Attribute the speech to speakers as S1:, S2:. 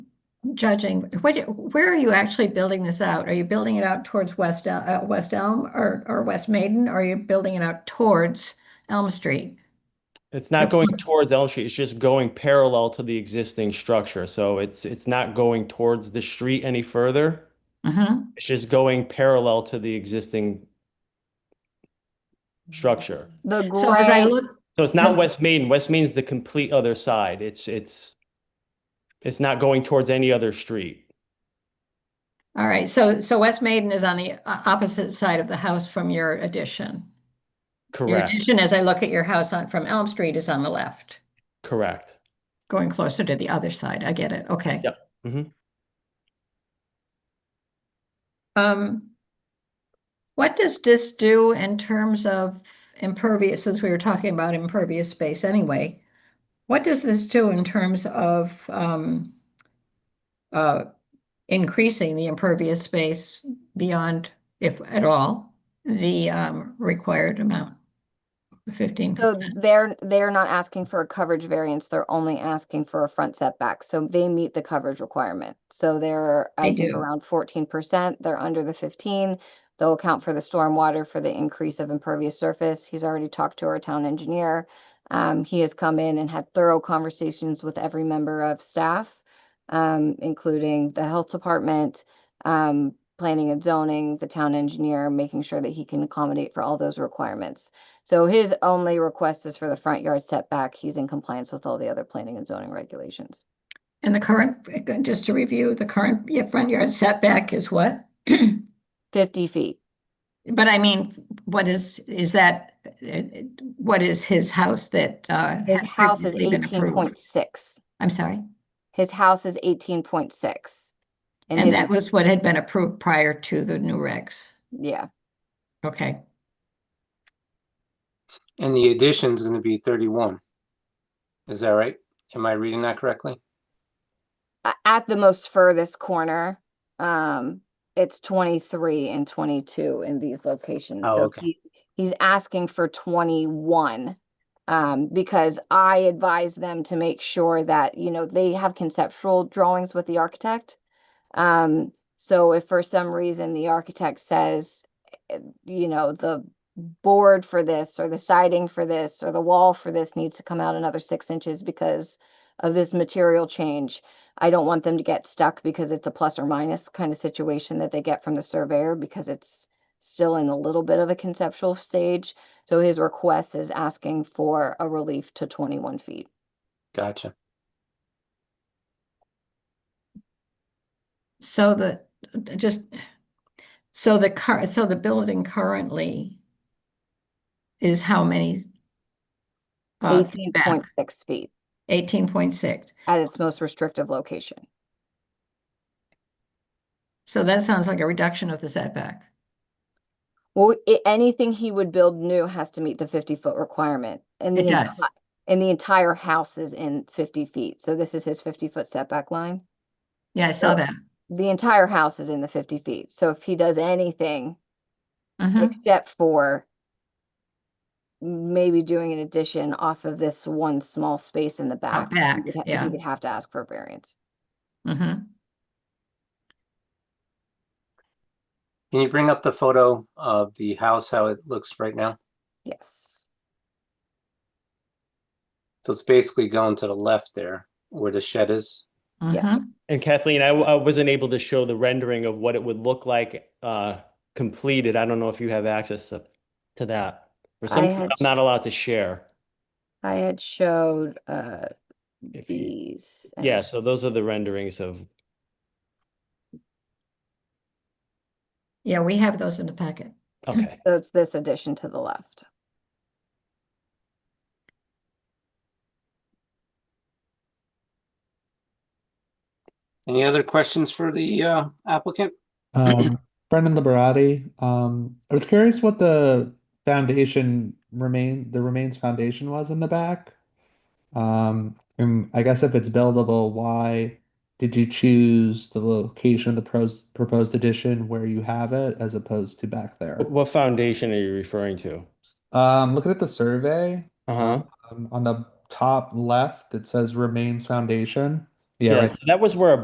S1: judging, what, where are you actually building this out? Are you building it out towards West, El- uh, West Elm or, or West Maiden? Or are you building it out towards Elm Street?
S2: It's not going towards Elm Street, it's just going parallel to the existing structure. So it's it's not going towards the street any further.
S1: Mhm.
S2: It's just going parallel to the existing structure.
S3: The gray.
S1: So as I look,
S2: So it's not
S1: Yeah.
S2: West Main. West Main's the complete other side. It's it's it's not going towards any other street.
S1: all right, so, so West Maiden is on the o- opposite side of the house from your addition. Your
S2: Correct.
S1: addition, as I look at your house on, from Elm Street is on the left,
S2: Correct.
S1: going closer to the other side. I get it, okay.
S2: Yep. Mhm.
S1: Um, what does this do in terms of impervious, since we were talking about impervious space anyway? What does this do in terms of, um, uh, increasing the impervious space beyond, if at all, the, um, required amount? Fifteen
S3: So
S1: percent,
S3: they're, they're not asking for a coverage variance, they're only asking for a front setback, so they meet the coverage requirement. So they're, I
S1: They
S3: think,
S1: do.
S3: around fourteen percent, they're under the fifteen. They'll account for the stormwater for the increase of impervious surface, he's already talked to our town engineer. Um, he has come in and had thorough conversations with every member of staff, um, including the health department, um, planning and zoning, the town engineer, making sure that he can accommodate for all those requirements. So his only request is for the front yard setback. He's in compliance with all the other planning and zoning regulations.
S1: and the current, just to review, the current yeah, front yard setback is what?
S3: Fifty feet.
S1: But I mean, what is, is that, uh, what is his house that, uh?
S3: His
S1: had
S3: house is
S1: previously been
S3: eighteen point
S1: approved?
S3: six.
S1: I'm sorry,
S3: His house is eighteen point six.
S1: and that was what had been approved prior to the new regs,
S3: Yeah,
S1: okay,
S4: And the addition's gonna be thirty-one. Is that right? Am I reading that correctly?
S3: A- at the most furthest corner, um, it's twenty-three and twenty-two in these locations.
S4: Oh,
S3: So
S4: okay.
S3: he- He's asking for twenty-one. Um, because I advise them to make sure that, you know, they have conceptual drawings with the architect. Um, so if for some reason the architect says, eh, you know, the board for this or the siding for this or the wall for this needs to come out another six inches because of this material change, I don't want them to get stuck because it's a plus or minus kind of situation that they get from the surveyor because it's still in a little bit of a conceptual stage. So his request is asking for a relief to twenty-one feet.
S4: Gotcha.
S1: so the, just, so the car, so the building currently is how many? Uh,
S3: Eighteen
S1: feet
S3: point
S1: back,
S3: six feet
S1: eighteen point six,
S3: at its most restrictive location.
S1: so that sounds like a reduction of the setback,
S3: Well, i anything he would build new has to meet the fifty foot requirement and the.
S1: it
S3: enti-
S1: does,
S3: And the entire house is in fifty feet, so this is his fifty foot setback line.
S1: yeah, I saw
S3: So-
S1: that.
S3: The entire house is in the fifty feet, so if he does anything
S1: Mhm.
S3: except for maybe doing an addition off of this one small space in the back. he
S1: back,
S3: would ha-
S1: yeah.
S3: He would have to ask for a variance.
S1: Mm-hmm.
S4: Can you bring up the photo of the house, how it looks right now?
S3: Yes,
S4: So it's basically going to the left there where the shed is.
S1: Mm-hmm. Uh-huh.
S3: yes.
S2: And Kathleen, I, w- I wasn't able to show the rendering of what it would look like uh, completed. I don't know if you have access to, to that. For
S3: I
S2: some,
S3: had-
S2: I'm not allowed to share.
S3: I had showed uh
S2: If you,
S3: these. and-
S2: yeah, so those are the renderings of,
S1: Yeah, we have those in the packet.
S2: okay.
S3: So it's this addition to the left.
S4: Any other questions for the uh, applicant?
S5: Um, Brendan Liberati. Um, I was curious what the foundation remain the remains foundation was in the back. Um, and I guess if it's buildable, why did you choose the location of the pros proposed addition where you have it as opposed to back there?
S2: Wh- What foundation are you referring to?
S5: Um, looking at the survey,
S2: Uh-huh.
S5: um, on the top left, it says remains foundation. Yeah,
S2: Yeah,
S5: right
S2: so that was where a